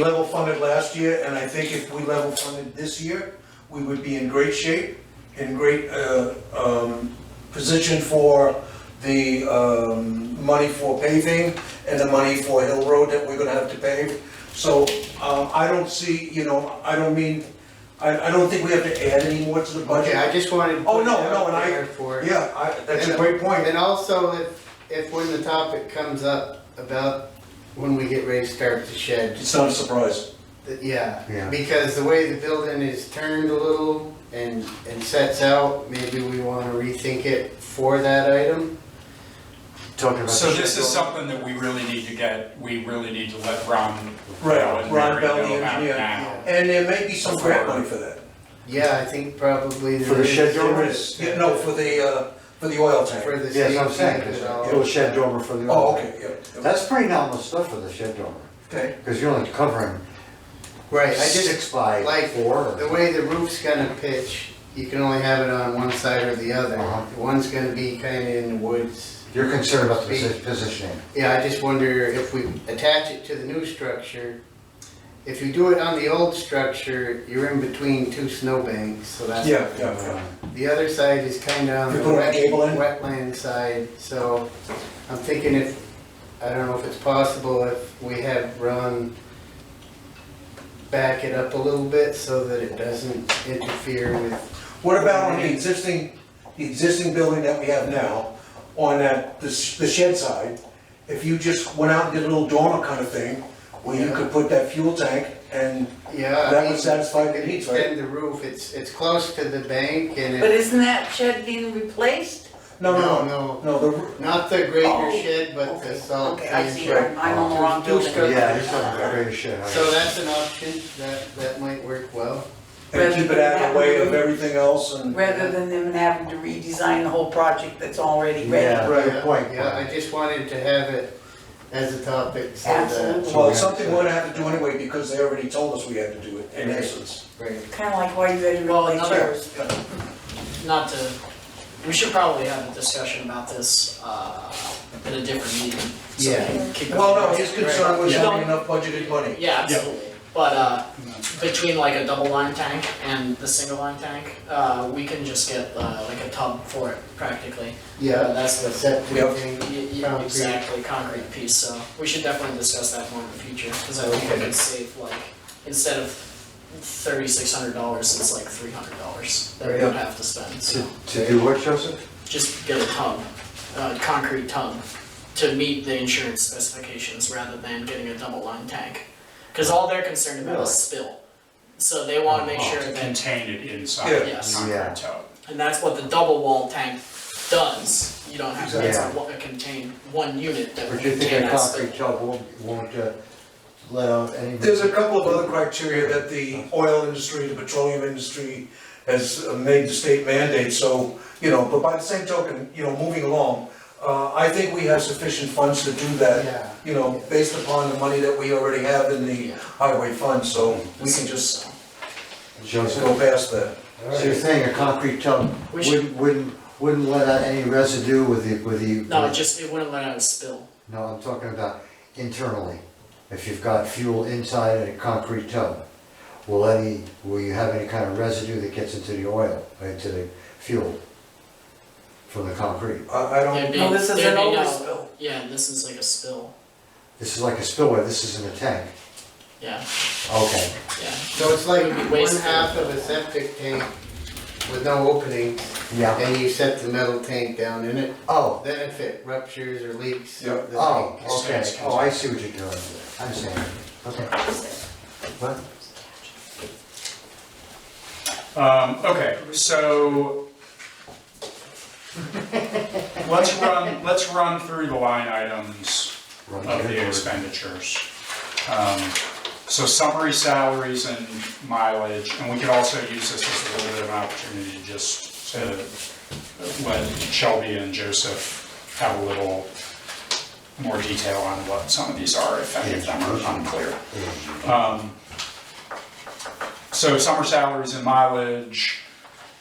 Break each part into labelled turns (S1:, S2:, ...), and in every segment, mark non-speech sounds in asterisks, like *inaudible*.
S1: level funded last year, and I think if we level funded this year, we would be in great shape, in great, uh, um, position for the, um, money for paving and the money for Hill Road that we're gonna have to pave. So, um, I don't see, you know, I don't mean, I, I don't think we have to add any more to the
S2: Okay, I
S1: budget.
S2: just wanted. to
S1: Oh,
S2: put
S1: no,
S2: it out
S1: no, and I-
S2: there For.
S1: Yeah, I, that's a
S2: And-
S1: great point.
S2: And also, if, if when the topic comes up about when we get ready to start the shed,
S1: It's not a surprise.
S2: that- yeah.
S3: Yeah.
S2: Because the way the building is turned a little and, and sets out, maybe we wanna rethink it for that item.
S3: Talking about.
S4: So
S3: the
S4: this is
S3: shed
S4: something that we really need to get, we really need to let Ron.
S1: Right,
S4: and
S1: Ron
S4: Mary
S1: Bell,
S4: know
S1: the
S4: about
S1: engineer.
S4: now.
S1: And there may be some grant money for that.
S2: Yeah, I think probably.
S3: For the
S2: there is-
S3: shed door?
S1: There is, yeah, no, for the, uh, for the oil tank.
S2: For the.
S3: dormer. Yeah, that's what I'm
S2: safety
S3: saying,
S2: of it all.
S3: it was shed dormer for the.
S1: Oh,
S3: other
S1: okay,
S3: thing.
S1: yeah, yeah,
S3: That's pretty nominal stuff for the shed dormer,
S1: okay,
S3: because you're only covering
S2: Right, I just,
S3: six by
S2: like,
S3: four. or-
S2: The way the roof's gonna pitch, you can only have it on one side or the other.
S3: Uh-huh.
S2: One's gonna be kinda in the woods.
S3: You're concerned about the posi- positioning.
S2: Yeah, I just wonder if we attach it to the new structure. If you do it on the old structure, you're in between two snowbanks, so that's.
S1: yeah, yeah,
S3: Uh,
S1: yeah.
S2: The other side is kinda on
S1: You
S2: the
S1: put a
S2: wet-
S1: gable in?
S2: wetland side, so I'm thinking if, I don't know if it's possible if we have Ron back it up a little bit so that it doesn't interfere with
S1: What about on the existing, the existing building that we have now, on that, the sh- the shed side? If you just went out and did a little dormer kind of thing, where you could put that fuel tank and
S2: Yeah. I
S1: that
S2: mean,
S1: would satisfy the needs, right?
S2: Extend the roof, it's, it's close to the bank and
S5: But
S2: it,
S5: isn't that shed being replaced?
S1: No, no, no,
S2: no,
S1: no, the,
S2: not the greater
S5: Oh,
S2: shed, but the
S5: Okay,
S2: salt.
S5: Okay, I
S2: pan
S5: see,
S2: shed.
S5: I'm I'm on the wrong
S2: Two- two
S5: building.
S2: stra-
S3: Yeah, you're talking about greater shed.
S2: So that's an option, that, that might work well.
S1: and keep it out of the way of everything else and,
S5: Rather than them having to redesign the whole project that's already ready.
S3: Yeah, good
S2: Yeah,
S3: point.
S2: Yeah, I just wanted to have it as a topic so that.
S5: Absolutely.
S1: well, it's something we're gonna have to do anyway, because they already told us we had to do it, in essence.
S2: Right.
S5: Kinda like why you had to
S6: Well,
S5: replace
S6: another-
S5: yours.
S6: not to, we should probably have a discussion about this, uh, at a different meeting. so we
S2: Yeah.
S6: can keep-
S1: Well, no, his concern was
S6: Yeah.
S1: having enough budgeted money.
S6: Yeah, absolutely, but, uh, between like a double line tank and the single line tank, uh, we can just get, uh, like a tub for it practically. Uh,
S2: Yeah,
S6: That's
S2: the
S6: the,
S2: septic
S1: Yep.
S2: thing,
S6: y- y-
S2: Concrete.
S6: exactly, concrete piece, so we should definitely discuss that more in the future, cause I think we
S2: Okay.
S6: could save like, instead of thirty-six hundred dollars, it's like three hundred dollars that we
S2: Right.
S6: don't have to spend, so.
S3: To, to do what, Joseph?
S6: just get a tub, a concrete tub, to meet the insurance specifications rather than getting a double line tank. Cause all they're concerned about is spill, so they wanna make
S3: Oh,
S6: sure
S4: To
S6: that,
S4: Contain it inside
S1: Yeah.
S4: the
S6: Yes.
S3: Yeah.
S4: concrete tub.
S6: and that's what the double wall tank does. You don't have, to it's
S3: Yeah.
S6: a, one- a contain, one unit that will
S3: But you
S6: contain
S3: think a
S6: that spill.
S3: concrete tub won't, won't uh, let out any?
S1: There's a couple of other criteria that the oil industry, the petroleum industry has uh, made the state mandate, so, you know, but by the same token, you know, moving along, uh, I think we have sufficient funds to do that,
S2: yeah.
S1: you know, based upon the money that we already have in the
S6: Yeah.
S1: highway fund, so we can just
S3: Joseph,
S1: go past that.
S3: so you're saying a concrete tub
S6: We
S3: wouldn't,
S6: should-
S3: wouldn't, wouldn't let out any residue with the, with the?
S6: No, it just, it wouldn't let out a spill.
S3: No, I'm talking about internally. If you've got fuel inside in a concrete tub, will any, will you have any kind of residue that gets into the oil, uh, into the fuel from the concrete?
S1: I, I
S6: There'd
S1: don't,
S6: be-
S5: No, this is
S6: there'd
S5: an
S6: be no-
S5: overspill.
S6: Yeah, this is like a spill,
S3: This is like a spillway, this isn't a tank.
S6: yeah,
S3: Okay,
S6: yeah.
S2: So it's like
S6: It would be
S2: one
S6: wasteful.
S2: half of a septic tank with no opening,
S3: yeah,
S2: and you set the metal tank down in it.
S3: oh,
S2: Then if it ruptures or leaks.
S1: Yeah.
S2: the
S3: oh,
S2: tank-
S3: okay, oh, I see what you're doing, I understand, okay. What?
S4: Um, okay, *laughs* so let's run, let's run through the line items
S3: Run
S4: of
S3: the
S4: the
S3: board.
S4: expenditures. Um, So summary salaries and mileage, and we could also use this as a little bit of an opportunity to just to let Shelby and Joseph have a little more detail on what some of these are, if any of them are unclear. Um, So summer salaries and mileage,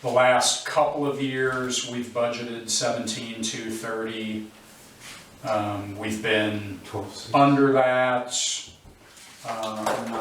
S4: the last couple of years, we've budgeted seventeen to thirty. Um, we've been
S3: Twelve, six.
S4: under that. Um,